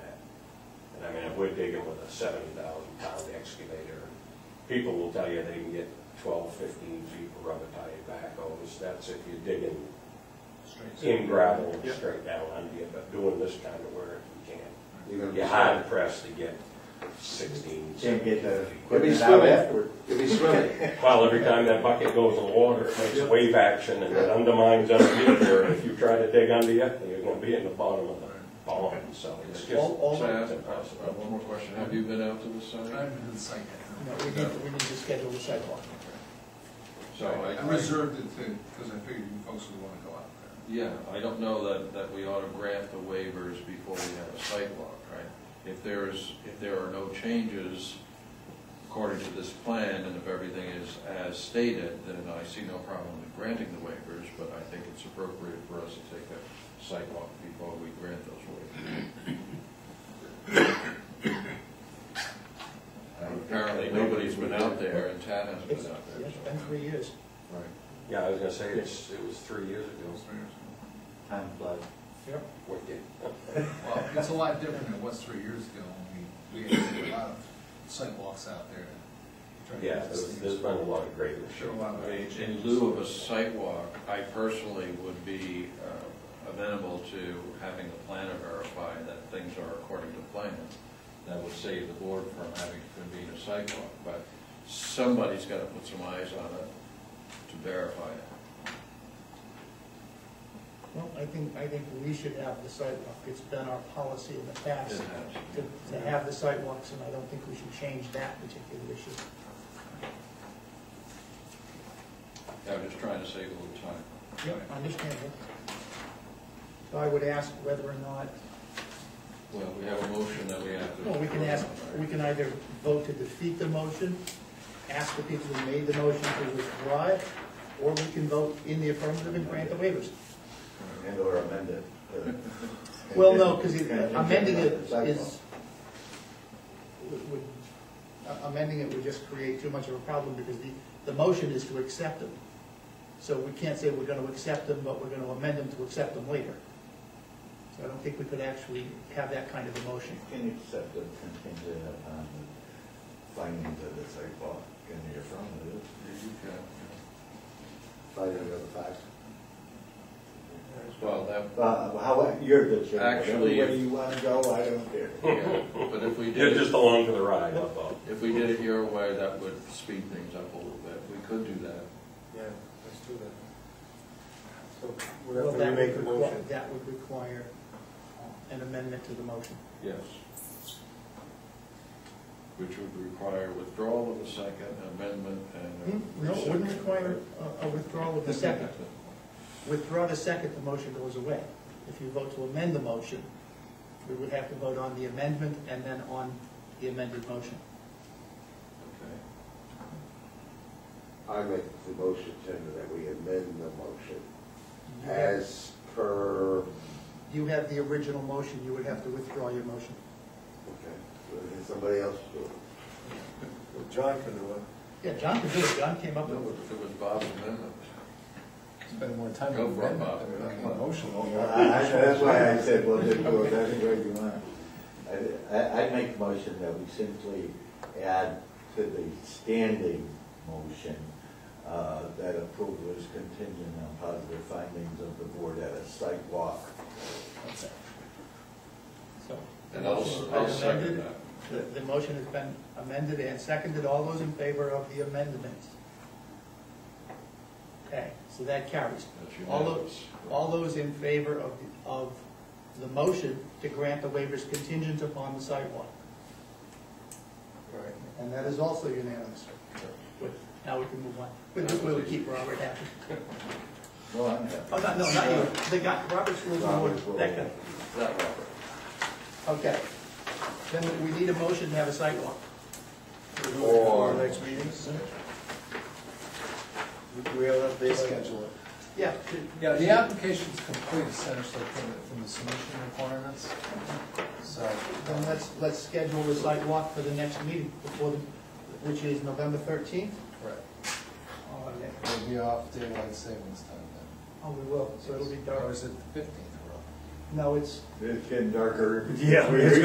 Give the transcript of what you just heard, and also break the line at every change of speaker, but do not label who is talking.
if we're digging with a seventy thousand pound excavator, people will tell you they can get 12, 15 feet of rubber tire backhoes. That's if you're digging in gravel and
Yeah.
straight down under you, but doing this kind of work, you can't.
You're gonna be
You're hard pressed to get sixteen.
Can't get the
17 feet.
You'll be
Equipment out
swimming.
afterward.
You'll be swimming.
Well, every time that bucket goes in the water, it makes wave action and it undermines underneath there. And if you try to dig under you, you're gonna be in the bottom of the pond, so it's just,
All- all-
it's impossible.
One more question, have you been out to the site?
I've been to the site.
No, we need, we need to schedule the sidewalk.
So I-
I reserved it to, because I figured you folks would want to go out there.
Yeah, I don't know that, that we ought to grant the waivers before we have a site walk, right? If there's, if there are no changes according to this plan, and if everything is as stated, then I see no problem with granting the waivers, but I think it's appropriate for us to take a site walk before we grant those waivers. And Apparently, nobody's been out there, and Tad hasn't
It's,
been out there.
it's been three years.
so- Right.
Yeah, I was gonna say, it's, it was three years ago.
Those areas.
Time flies.
Yep.
Wicked.
Well, it's a lot different than it was three years ago when we, we had a lot of sidewalks out there. to try to
Yeah,
get this
there's,
thing
there's been a lot of great
Sure, a lot of-
I mean, In lieu of a site walk, I personally would be uh, amenable to having the planner verify that things are according to plan. That would save the board from having to convene a site walk, but somebody's got to put some eyes on it to verify it.
Well, I think, I think we should have the sidewalk. It's been our policy in the past
Didn't have to.
to, to have the sidewalks, and I don't think we should change that particular issue.
I'm just trying to save a little time.
Yep. Understandable. So I would ask whether or not,
Well, we have a motion that we have to.
well, we can ask, we can either vote to defeat the motion, ask the people who made the motion to withdraw it, or we can vote in the affirmative and grant the waivers.
And or amend it. uh,
Well, no, because
and-
amending it
and-
is, would- would, a- amending it would just create too much of a problem, because the, the motion is to accept them. So we can't say we're gonna accept them, but we're gonna amend them to accept them later. So I don't think we could actually have that kind of a motion.
Can you accept it contingent upon the findings of the sidewalk and the affirmative? Finding of the facts.
Well, that,
Uh, how, you're the chair.
Actually,
Where you wanna go, I don't care.
yeah, but if we did.
You're just along for the ride, that's all.
If we did it your way, that would speed things up a little bit. We could do that.
Yeah, let's do that. So
Well,
whatever
that
you make the
would requi-
motion,
That would require uh, an amendment to the motion.
Yes. Which would require withdrawal of the second amendment and. a
Hmm? No, it wouldn't
rescission,
require
right?
a- a withdrawal of the second. Withdraw the second, the motion goes away. If you vote to amend the motion, we would have to vote on the amendment and then on the amended motion.
Okay.
I make the motion, Tender, that we amend the motion
You have-
as per, okay,
You have the original motion, you would have to withdraw your motion.
well, then somebody else do it.
Well, John can do it.
Yeah, John could do it, John came up
No,
with it.
It was Bob's amendment.
Spend more time
Go for it, Bob.
I- I- That's why I said, well, just go with every way you want. I, I- I'd make a motion that we simply add to the standing motion uh, that approval is contingent on positive findings of the board at a site walk.
So. the
And I'll,
motion has
I'll
been
second
amended.
that.
The, the motion has been amended and seconded. All those in favor of the amendment? Okay, so that carries.
That's
All
unanimous.
those, all those in favor of, the- of the motion to grant the waivers contingent upon the sidewalk?
Right.
And that is also unanimous. Good. Now we can move on. We'll, we'll keep Robert happy.
Well, I'm happy.
Oh, no, no, not you. The guy, Robert's rules of
Robert's
order.
rule.
That guy.
That Robert.
Okay. Then we need a motion to have a sidewalk.
Or. Next meeting?
We'll have
They schedule it.
Yeah.
Yeah, the application's complete essentially from the, from the submission requirements, so.
Then let's, let's schedule the sidewalk for the next meeting before, the- which is November thirteenth.
Right. It'll be off daylight savings time then.
Oh, we will, so it'll be dark.
Or is it the fifteenth?
No, it's,
It's getting darker.
Yeah.
We-